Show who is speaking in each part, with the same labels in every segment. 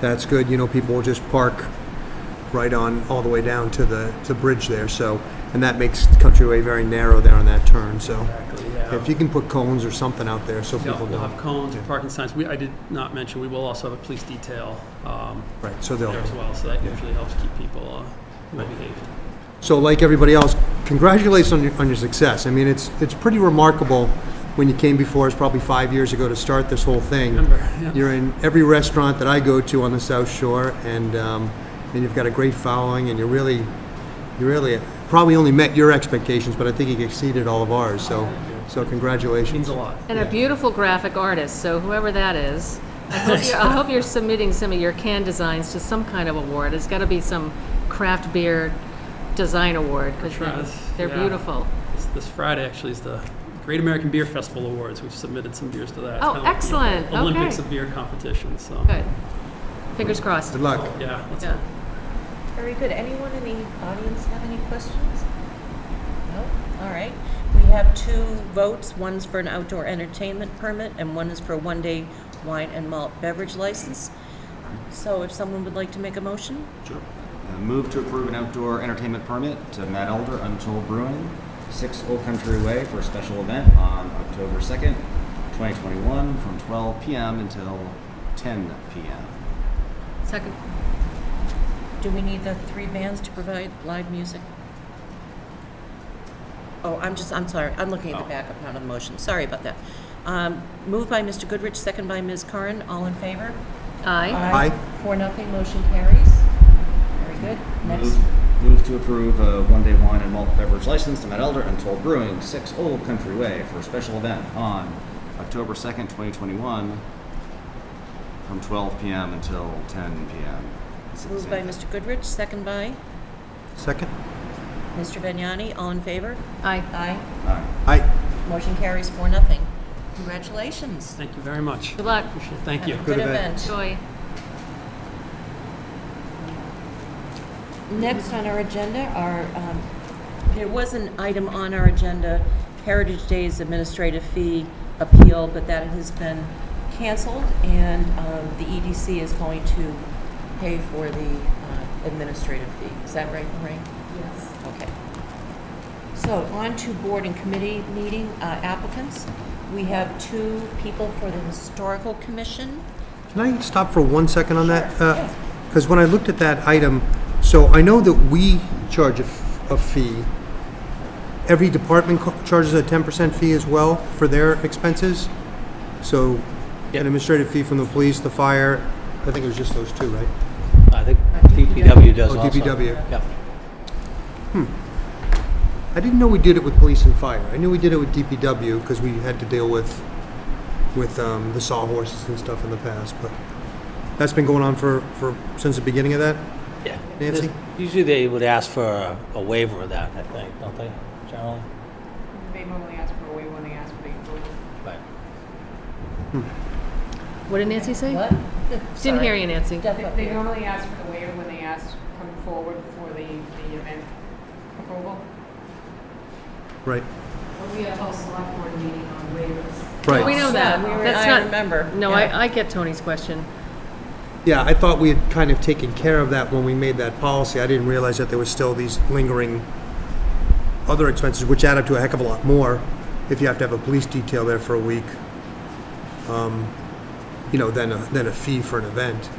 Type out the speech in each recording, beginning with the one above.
Speaker 1: that's good. You know, people will just park right on, all the way down to the, to the bridge there, so, and that makes Countryway very narrow there on that turn, so.
Speaker 2: Exactly, yeah.
Speaker 1: If you can put cones or something out there so
Speaker 2: Yeah,
Speaker 1: people
Speaker 2: we'll have
Speaker 1: know.
Speaker 2: cones, parking signs. We, I did not mention, we will also have a police detail um,
Speaker 1: Right, so
Speaker 2: there
Speaker 1: they'll,
Speaker 2: as well, so that
Speaker 1: Yeah.
Speaker 2: usually helps keep people uh, well behaved.
Speaker 1: so like everybody else, congratulations on your, on your success. I mean, it's, it's pretty remarkable when you came before us probably five years ago to start this whole thing.
Speaker 2: Remember, yeah.
Speaker 1: You're in every restaurant that I go to on the South Shore, and um, and you've got a great following, and you really, you really probably only met your expectations, but I think you exceeded all of ours. So, so
Speaker 2: Means
Speaker 1: congratulations.
Speaker 2: a lot.
Speaker 3: And a beautiful graphic artist, so whoever that is, I hope you're, I hope you're submitting some of your can designs to some kind of award. It's got to be some craft beer design award, because
Speaker 2: Sure,
Speaker 3: they're,
Speaker 2: that's-
Speaker 3: they're
Speaker 2: yeah.
Speaker 3: beautiful.
Speaker 2: This- This Friday actually is the Great American Beer Festival Awards. We've submitted some beers to that. It's
Speaker 3: Oh,
Speaker 2: kind of like the
Speaker 3: excellent.
Speaker 2: Olympics
Speaker 3: Okay.
Speaker 2: of beer competition, so.
Speaker 3: Good. Fingers crossed.
Speaker 1: Good luck.
Speaker 2: Yeah, let's
Speaker 3: Yeah.
Speaker 4: Very good. Anyone in the audience have any questions? No? All right. We have two votes. One's for an outdoor entertainment permit, and one is for a one-day wine and malt beverage license. So if someone would like to make a motion?
Speaker 5: Sure. Uh, Move to approve an outdoor entertainment permit to Matt Elder, Untold Brewing, 6 Old Country Way for a special event on October 2nd, 2021, from 12 p.m. until 10 p.m.
Speaker 3: Second,
Speaker 4: Do we need the three bands to provide live music? Oh, I'm just, I'm sorry. I'm looking at the backup, not on the motion. Sorry about that. Um, Moved by Mr. Goodrich, second by Ms. Curran. All in favor?
Speaker 3: aye.
Speaker 1: Aye.
Speaker 4: Four, nothing, motion carries. Very good. Next,
Speaker 5: Move- Move to approve a one-day wine and malt beverage license to Matt Elder, Untold Brewing, 6 Old Country Way for a special event on October 2nd, 2021, from 12 p.m. until 10 p.m. It's the
Speaker 4: moved
Speaker 5: same
Speaker 4: by
Speaker 5: thing.
Speaker 4: Mr. Goodrich, second by
Speaker 1: Second.
Speaker 4: Mr. Vignani, all in favor?
Speaker 3: Aye.
Speaker 4: Aye.
Speaker 5: Aye.
Speaker 1: Aye.
Speaker 4: Motion carries four, nothing. Congratulations.
Speaker 2: Thank you very much.
Speaker 3: Good luck.
Speaker 2: Appreciate it. Thank you.
Speaker 1: Good
Speaker 4: Good
Speaker 1: event.
Speaker 4: event.
Speaker 3: Joy.
Speaker 4: Next on our agenda are, um, there was an item on our agenda, Heritage Days administrative fee appeal, but that has been canceled, and um, the EDC is going to pay for the uh, administrative fee. Is that right, Lorraine?
Speaker 3: Yes.
Speaker 4: Okay. So on to board and committee meeting uh, applicants. We have two people for the Historical Commission.
Speaker 1: Can I stop for one second on that?
Speaker 4: Sure, yes.
Speaker 1: Because when I looked at that item, so I know that we charge a, f- a fee. Every department co- charges a 10% fee as well for their expenses. So an administrative fee from the police, the fire, I think it was just those two, right?
Speaker 6: I think DPW does
Speaker 1: Oh,
Speaker 6: also.
Speaker 1: DPW.
Speaker 6: Yep.
Speaker 1: I didn't know we did it with police and fire. I knew we did it with DPW because we had to deal with, with um, the sawhorses and stuff in the past, but that's been going on for, for, since the beginning of that?
Speaker 6: Yeah.
Speaker 1: Nancy?
Speaker 6: Usually they would ask for a- a waiver of that, I think, don't they, generally?
Speaker 7: They normally ask for a waiver when they ask for the approval.
Speaker 6: Right.
Speaker 3: What did Nancy say?
Speaker 4: What?
Speaker 3: Didn't hear you, Nancy.
Speaker 7: They they normally ask for the waiver when they ask, come forward for the, the event approval.
Speaker 1: Right,
Speaker 7: We have a select board meeting on waivers.
Speaker 1: right.
Speaker 3: We know that.
Speaker 4: Yeah, we were-
Speaker 3: That's
Speaker 4: I
Speaker 3: not-
Speaker 4: remember.
Speaker 3: No,
Speaker 4: Yeah.
Speaker 3: I, I get Tony's question.
Speaker 1: Yeah, I thought we had kind of taken care of that when we made that policy. I didn't realize that there was still these lingering other expenses, which add up to a heck of a lot more if you have to have a police detail there for a week, um, you know, than a, than a fee for an event.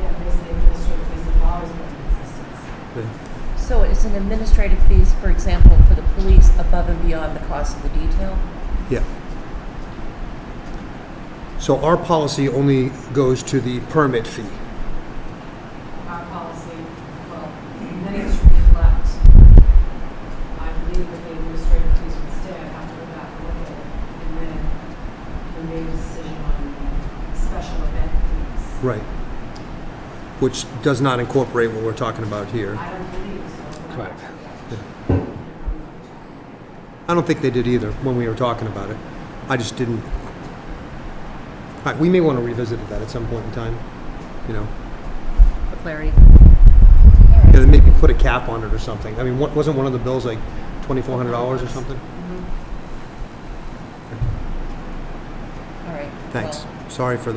Speaker 7: Yeah, they say administrative fees have always been in existence.
Speaker 4: So it's an administrative fees, for example, for the police above and beyond the cost of the detail?
Speaker 1: Yeah. So our policy only goes to the permit fee.
Speaker 7: Our policy, well, many should reflect. I believe that the administrative fees would stay, I'd have to go back and look at it. And then we made a decision on the special event fees.
Speaker 1: Right. Which does not incorporate what we're talking about here.
Speaker 7: I don't believe so.
Speaker 6: Correct.
Speaker 1: I don't think they did either when we were talking about it. I just didn't. All right, we may want to revisit that at some point in time, you know.
Speaker 3: For clarity.
Speaker 1: Yeah, then maybe put a cap on it or something. I mean, what, wasn't one of the bills like twenty-four hundred dollars or something?
Speaker 4: All right.
Speaker 1: Thanks.
Speaker 4: Well,
Speaker 1: Sorry for the.